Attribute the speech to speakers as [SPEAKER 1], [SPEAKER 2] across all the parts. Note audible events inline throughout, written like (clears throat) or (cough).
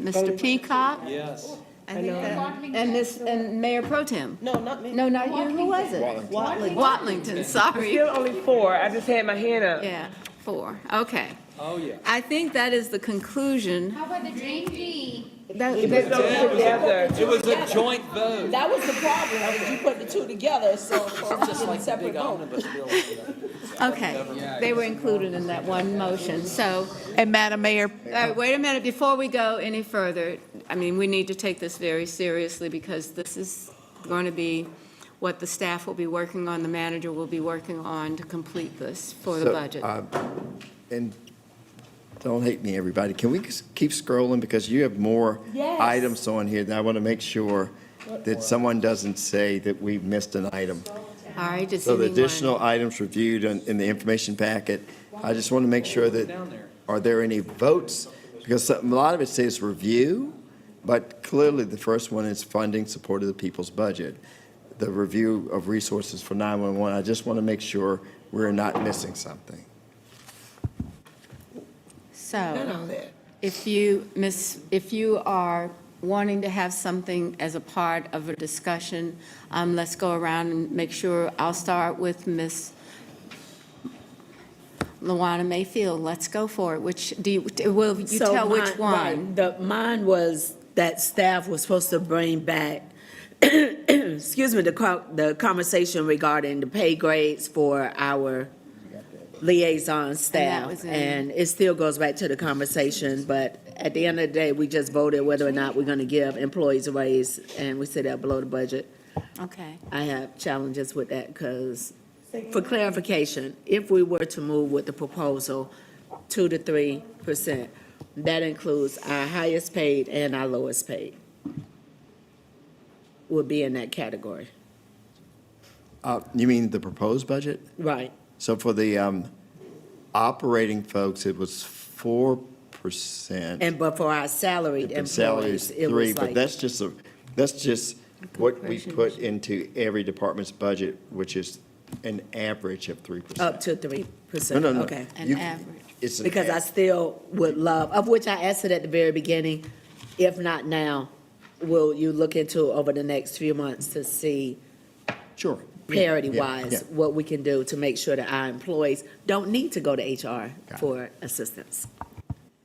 [SPEAKER 1] Mr. Peacock,
[SPEAKER 2] Yes.
[SPEAKER 1] I think that- and this, and Mayor Pro Tem.
[SPEAKER 3] No, not me.
[SPEAKER 1] No, not you, who was it?
[SPEAKER 3] Watley.
[SPEAKER 1] Watlington, sorry.
[SPEAKER 4] Still only four, I just had my hand up.
[SPEAKER 1] Yeah, four, okay.
[SPEAKER 2] Oh, yeah.
[SPEAKER 1] I think that is the conclusion.
[SPEAKER 5] How about the drain fee?
[SPEAKER 1] That-
[SPEAKER 4] Put those together.
[SPEAKER 2] It was a joint vote.
[SPEAKER 3] That was the problem, that you put the two together, so it's a separate vote.
[SPEAKER 1] Okay, they were included in that one motion, so,
[SPEAKER 6] And Madam Mayor,
[SPEAKER 1] uh, wait a minute, before we go any further, I mean, we need to take this very seriously because this is going to be what the staff will be working on, the manager will be working on to complete this for the
[SPEAKER 7] So,
[SPEAKER 1] budget.
[SPEAKER 7] uh, And don't hate me, everybody. Can we s- keep scrolling because you have more
[SPEAKER 3] Yes.
[SPEAKER 7] items on here, and I want to make sure that someone doesn't say that we missed an item.
[SPEAKER 1] All right, does
[SPEAKER 7] So the
[SPEAKER 1] anyone?
[SPEAKER 7] additional items reviewed in, in the information packet, I just want to make sure that, are there any votes? Because some- a lot of it says review, but clearly the first one is funding support of the people's budget. The review of resources for 911, I just want to make sure we're not missing something.
[SPEAKER 3] And
[SPEAKER 1] So,
[SPEAKER 3] all that.
[SPEAKER 1] if you, miss, if you are wanting to have something as a part of a discussion, um, let's go around and make sure, I'll start with Miss Luana Mayfield, let's go for it, which, do you, will you
[SPEAKER 3] So
[SPEAKER 1] tell which
[SPEAKER 3] mine-
[SPEAKER 1] one?
[SPEAKER 3] right, The, mine was that staff was supposed to bring back, (clears throat) excuse me, the, co- the conversation regarding the pay grades for our liaison
[SPEAKER 1] was
[SPEAKER 3] staff.
[SPEAKER 1] in-
[SPEAKER 3] And it still goes back to the conversation, but at the end of the day, we just voted whether or not we're gonna give employees a raise, and we said that below the budget.
[SPEAKER 1] Okay,
[SPEAKER 3] I have challenges with that because, for clarification, if we were to move with the proposal, two to three percent, that includes our highest paid and our lowest paid would be in that category.
[SPEAKER 7] Uh, You mean the proposed budget?
[SPEAKER 3] Right.
[SPEAKER 7] So for the um, operating folks, it was 4%.
[SPEAKER 3] And but for our salaried
[SPEAKER 7] And salaries
[SPEAKER 3] employees, it
[SPEAKER 7] three,
[SPEAKER 3] was
[SPEAKER 7] but
[SPEAKER 3] like,
[SPEAKER 7] that's just a, that's just what we
[SPEAKER 1] Corporations.
[SPEAKER 7] put into every department's budget, which is an average of three
[SPEAKER 3] up
[SPEAKER 7] percent.
[SPEAKER 3] to three
[SPEAKER 7] No,
[SPEAKER 3] percent,
[SPEAKER 7] no, no.
[SPEAKER 3] Oh, okay.
[SPEAKER 1] An
[SPEAKER 7] You-
[SPEAKER 1] average.
[SPEAKER 7] It's an
[SPEAKER 3] Because I
[SPEAKER 7] av-
[SPEAKER 3] still would love, of which I asked it at the very beginning, if not now, will you look into over the next few months to see
[SPEAKER 7] Sure. Yeah, yeah, yeah.
[SPEAKER 3] parity-wise, what we can do to make sure that our employees don't need to go to HR for assistance.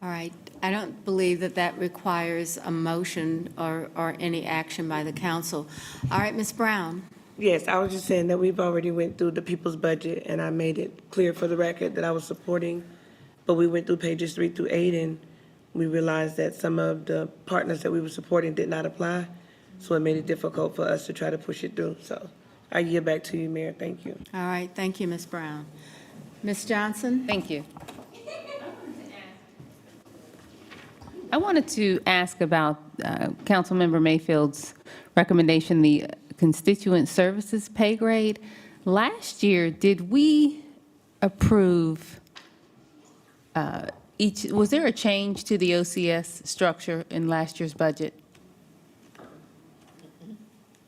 [SPEAKER 1] all right. I don't believe that that requires a motion or, or any action by the council. All right, Ms. Brown?
[SPEAKER 4] Yes, I was just saying that we've already went through the people's budget, and I made it clear for the record that I was supporting, but we went through pages three through eight, and we realized that some of the partners that we were supporting did not apply, so it made it difficult for us to try to push it through, so I yield back to you, Mayor, thank you.
[SPEAKER 1] All right, thank you, Ms. Brown. Ms. Johnson?
[SPEAKER 8] Thank you. I wanted to ask about uh, Councilmember Mayfield's recommendation, the constituent services pay grade. Last year, did we approve uh, each, was there a change to the OCS structure in last year's budget?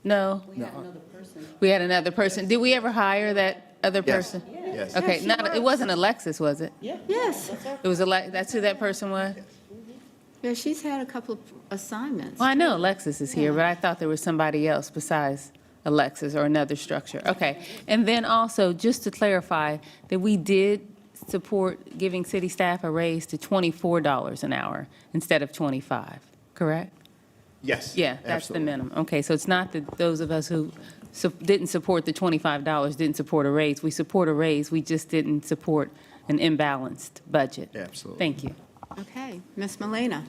[SPEAKER 8] No? We had another person. We had another person. Did we ever hire that other
[SPEAKER 7] Yes.
[SPEAKER 8] person?
[SPEAKER 7] Yes.
[SPEAKER 8] Okay, not, it wasn't Alexis, was it?
[SPEAKER 1] Yes.
[SPEAKER 8] It was Alex, that's who that person was?
[SPEAKER 1] Yeah, she's had a couple of assignments.
[SPEAKER 8] Well, I know Alexis is here, but I thought there was somebody else besides Alexis or another structure. Okay. And then also, just to clarify, that we did support giving city staff a raise to $24 an hour instead of 25, correct?
[SPEAKER 7] Yes.
[SPEAKER 8] Yeah, that's the
[SPEAKER 7] absolutely.
[SPEAKER 8] minimum. Okay, so it's not that those of us who su- didn't support the $25 didn't support a raise. We support a raise, we just didn't support an imbalanced budget.
[SPEAKER 7] Absolutely.
[SPEAKER 8] Thank you.
[SPEAKER 1] Okay, Ms. Malina?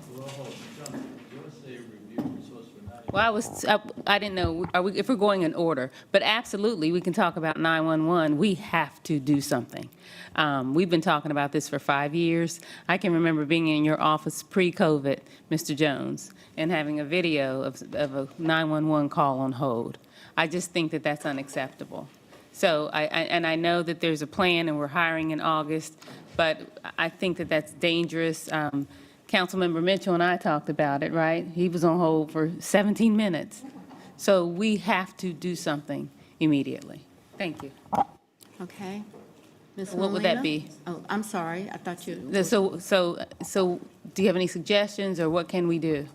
[SPEAKER 8] Well, I was, I I didn't know, are we, if we're going in order, but absolutely, we can talk about 911. We have to do something. Um, We've been talking about this for five years. I can remember being in your office pre-COVID, Mr. Jones, and having a video of, of a 911 call on hold. I just think that that's unacceptable. So I, I- and I know that there's a plan and we're hiring in August, but I think that that's dangerous. Um, Councilmember Mitchell and I talked about it, right? He was on hold for 17 minutes. So we have to do something immediately. Thank you.
[SPEAKER 1] Okay. Ms.
[SPEAKER 8] What would that
[SPEAKER 1] Malina?
[SPEAKER 8] be?
[SPEAKER 1] Oh, I'm sorry, I thought you.
[SPEAKER 8] So, so, so do you have any suggestions or what can we do?